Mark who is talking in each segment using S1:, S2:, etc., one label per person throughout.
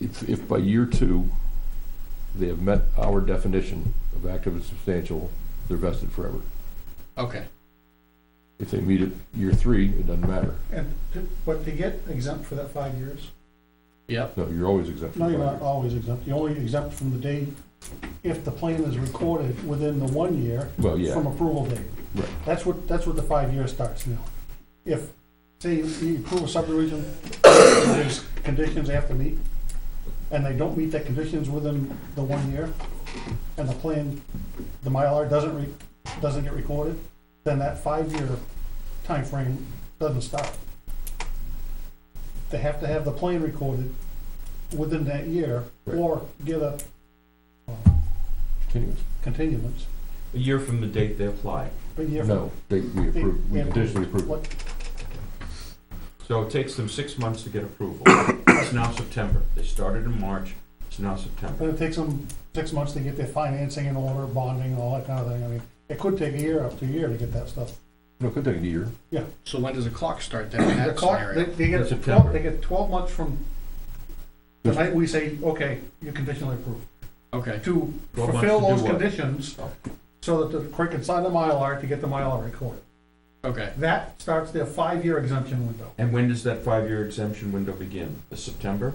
S1: if, if by year two, they have met our definition of active and substantial, they're vested forever.
S2: Okay,
S1: If they meet it year three, it doesn't matter.
S3: And, to- but to get exempt for that five years,
S2: yep,
S1: No, you're always exempt. from
S3: no, you're
S1: five
S3: not always exempt, you're only exempt from the date, if the plan is recorded within the one year
S1: years. Well,
S3: from
S1: yeah,
S3: approval date.
S1: right.
S3: That's what, that's what the five year starts now. If, say, you approve a subdivision, there's conditions they have to meet, and they don't meet the conditions within the one year, and the plan, the Mylar doesn't re, doesn't get recorded, then that five-year time frame doesn't stop. They have to have the plan recorded within that year, or get a uh,
S1: Continuous.
S3: continuance,
S4: A year from the date they apply.
S3: a year from
S1: No, they, we approve, we
S3: Yeah.
S1: conditionally approve. it.
S3: what,
S4: So it takes them six months to get approval. It's now September. They started in March, it's now September.
S3: But it takes them six months to get their financing in order, bonding, all that kind of thing. I mean, it could take a year, up to a year to get that stuff.
S1: No, it could take a year.
S2: so when does the clock start then in
S3: The
S2: that
S3: clock, they,
S2: scenario?
S3: they
S4: In
S3: get,
S4: September.
S3: twelve- they get twelve months from the night we say, okay, you're conditionally approved.
S2: Okay,
S3: To
S4: 12 months
S3: fulfill
S4: to do
S3: those
S4: what?
S3: conditions, so that the clerk can sign the Mylar to get the Mylar recorded.
S2: okay,
S3: That starts their five-year exemption window,
S4: And when does that five-year exemption window begin? Is September?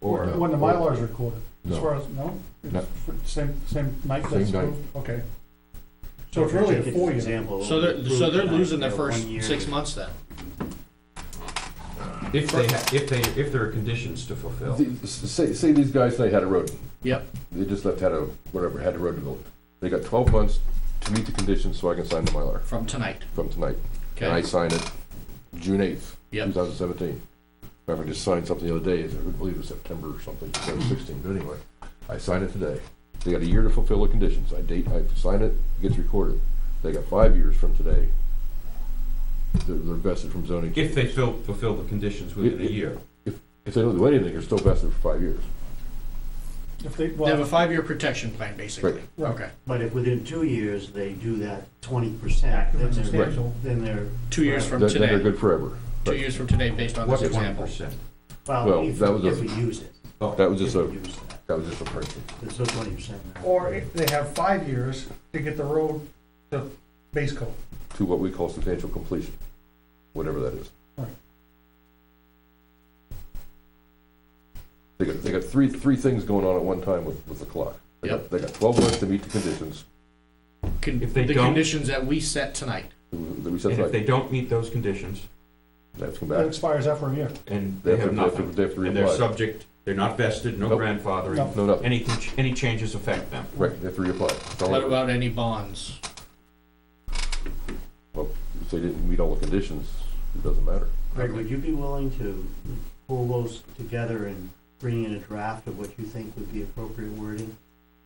S4: Or,
S3: when the Mylar is recorded. As
S1: No.
S3: far as, no?
S1: No.
S3: It's Same, same night
S1: Same
S3: that's
S1: night.
S3: approved? Okay. So it's really a
S5: Take it, for
S3: four-year.
S5: example,
S2: so they're, so they're
S5: approved tonight,
S2: losing their
S5: you know,
S2: first
S5: one year.
S2: six months then?
S4: if they, ha- if they, if there are conditions to fulfill.
S1: The- s- Say, say these guys say Hatter Road.
S2: Yep.
S1: They just left Hatter, whatever, Hatter Road developed. They got twelve months to meet the conditions so I can sign the Mylar
S2: From tonight,
S1: from tonight. And I
S2: okay,
S1: signed it June eighth, two
S2: yep,
S1: thousand seventeen. In fact, I just signed something the other day, I believe it was September or something, two thousand sixteen, but anyway. I signed it today. They got a year to fulfill the conditions. I date, I sign it, it gets recorded. They got five years from today. They're, they're vested from zoning.
S4: If they fill, fulfill the conditions within a year.
S1: If they don't do anything, they're still vested for five years.
S3: If they,
S2: they have a
S3: well,
S2: five-year protection plan, basically,
S3: Right.
S2: okay,
S5: But if within two years, they do that twenty percent,
S3: Active
S5: then
S3: and
S5: they're,
S3: substantial.
S5: then they're,
S2: two years from
S1: Then then they're
S2: today,
S1: good forever.
S2: two years from today, based on this
S4: What twenty
S2: example.
S4: percent? Oh,
S5: well,
S1: Well,
S5: if,
S1: that was a-
S5: if we use it.
S1: That was just
S5: if
S1: a,
S5: we use that,
S1: that was just a person.
S5: It's So twenty percent.
S3: or if they have five years to get the road to base coat.
S1: to what we call substantial completion, whatever that is.
S3: Right.
S1: They got, they got three, three things going on at one time with, with the clock. They got-
S2: Yep.
S1: They got twelve months to meet the conditions
S2: Con-
S4: If they
S2: The
S4: don't-
S2: conditions that we set tonight,
S1: that we
S4: And
S1: set
S4: if
S1: aside.
S4: they don't meet those conditions,
S1: They have to come
S3: That
S1: back.
S3: expires after a year.
S4: and
S1: They
S4: they
S1: have to- they
S4: have
S1: have to,
S4: nothing,
S1: they have to
S4: and they're
S1: reapply.
S4: subject, they're not vested, no
S1: Nope.
S4: grandfathering,
S1: No, no,
S4: any, con- any changes affect them.
S1: right, they have to reapply. It's all
S2: what
S1: over.
S2: about any bonds?
S1: If they didn't meet all the conditions, it doesn't matter.
S5: Greg, would you be willing to pull those together and bring in a draft of what you think would be appropriate wording?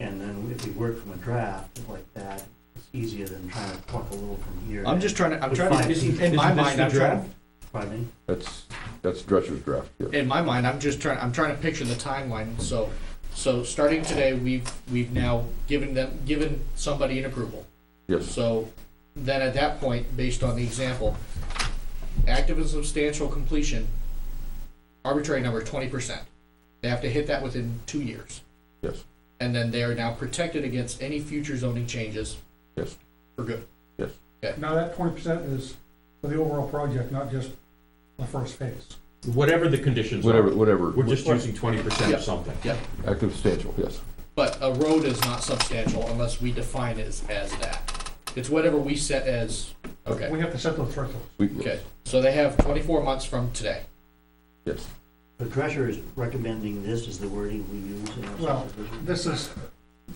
S5: And then if we work from a draft like that, it's easier than trying to pluck a little from here.
S2: I'm just trying to, I'm trying
S5: Fine.
S2: to,
S5: Isn't-
S2: in my
S4: isn't this
S2: mind,
S4: the
S2: I'm trying,
S4: draft?
S5: Pardon me?
S1: That's, that's Drescher's draft, yeah.
S2: in my mind, I'm just trying, I'm trying to picture the timeline, so, so starting today, we've, we've now given them, given somebody an approval.
S1: Yes,
S2: So then at that point, based on the example, active and substantial completion, arbitrary number twenty percent. They have to hit that within two years.
S1: Yes.
S2: And then they are now protected against any future zoning changes.
S1: Yes.
S2: For good.
S3: Now, that twenty percent is for the overall project, not just the first phase.
S4: Whatever the conditions are.
S1: whatever, whatever,
S4: We're just using twenty percent
S2: Yeah.
S4: of something.
S1: active substantial, yes.
S2: But a road is not substantial unless we define it as, as that. It's whatever we set as, okay,
S3: We have to set those thresholds.
S1: We-
S2: okay. So they have twenty-four months from today.
S1: Yes,
S5: The treasurer is recommending this is the wording we use in our
S3: Well,
S5: subdivision.
S3: This is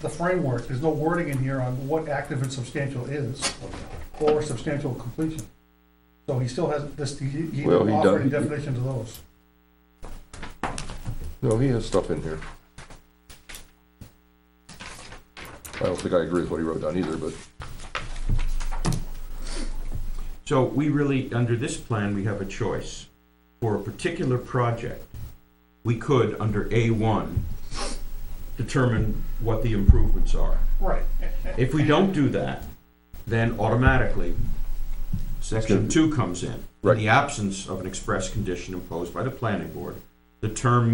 S3: the framework. There's no wording in here on what active and substantial is or substantial completion. So he still has this, he, he
S1: Well, he
S3: offered a
S1: done-
S3: definition to those.
S1: no, he has stuff in here. I don't think I agree with what he wrote down either, but
S4: So we really, under this plan, we have a choice. For a particular project, we could, under A1, determine what the improvements are.
S3: Right.
S4: If we don't do that, then automatically, section two comes in. In
S1: Right.
S4: the absence of an express condition imposed by the planning board, the term